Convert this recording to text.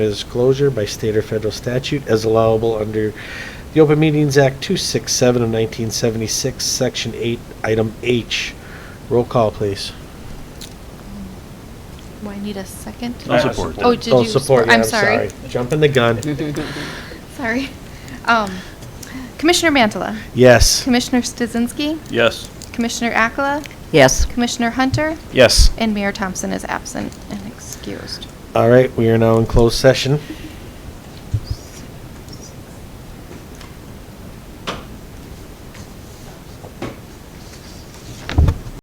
is closure by state or federal statute as allowable under the Open Meetings Act 267 of 1976, Section 8, Item H. Roll call, please. Do I need a second? No I- I support. support. Oh, did you? Oh, support, yeah, I'm sorry. Jumping the gun. Sorry. Um, Commissioner Mantala, Yes. Commissioner Stuzinski, Yes. Commissioner Akala, Yes. Commissioner Hunter, Yes. and Mayor Thompson is absent and excused. All right, we are now in closed session.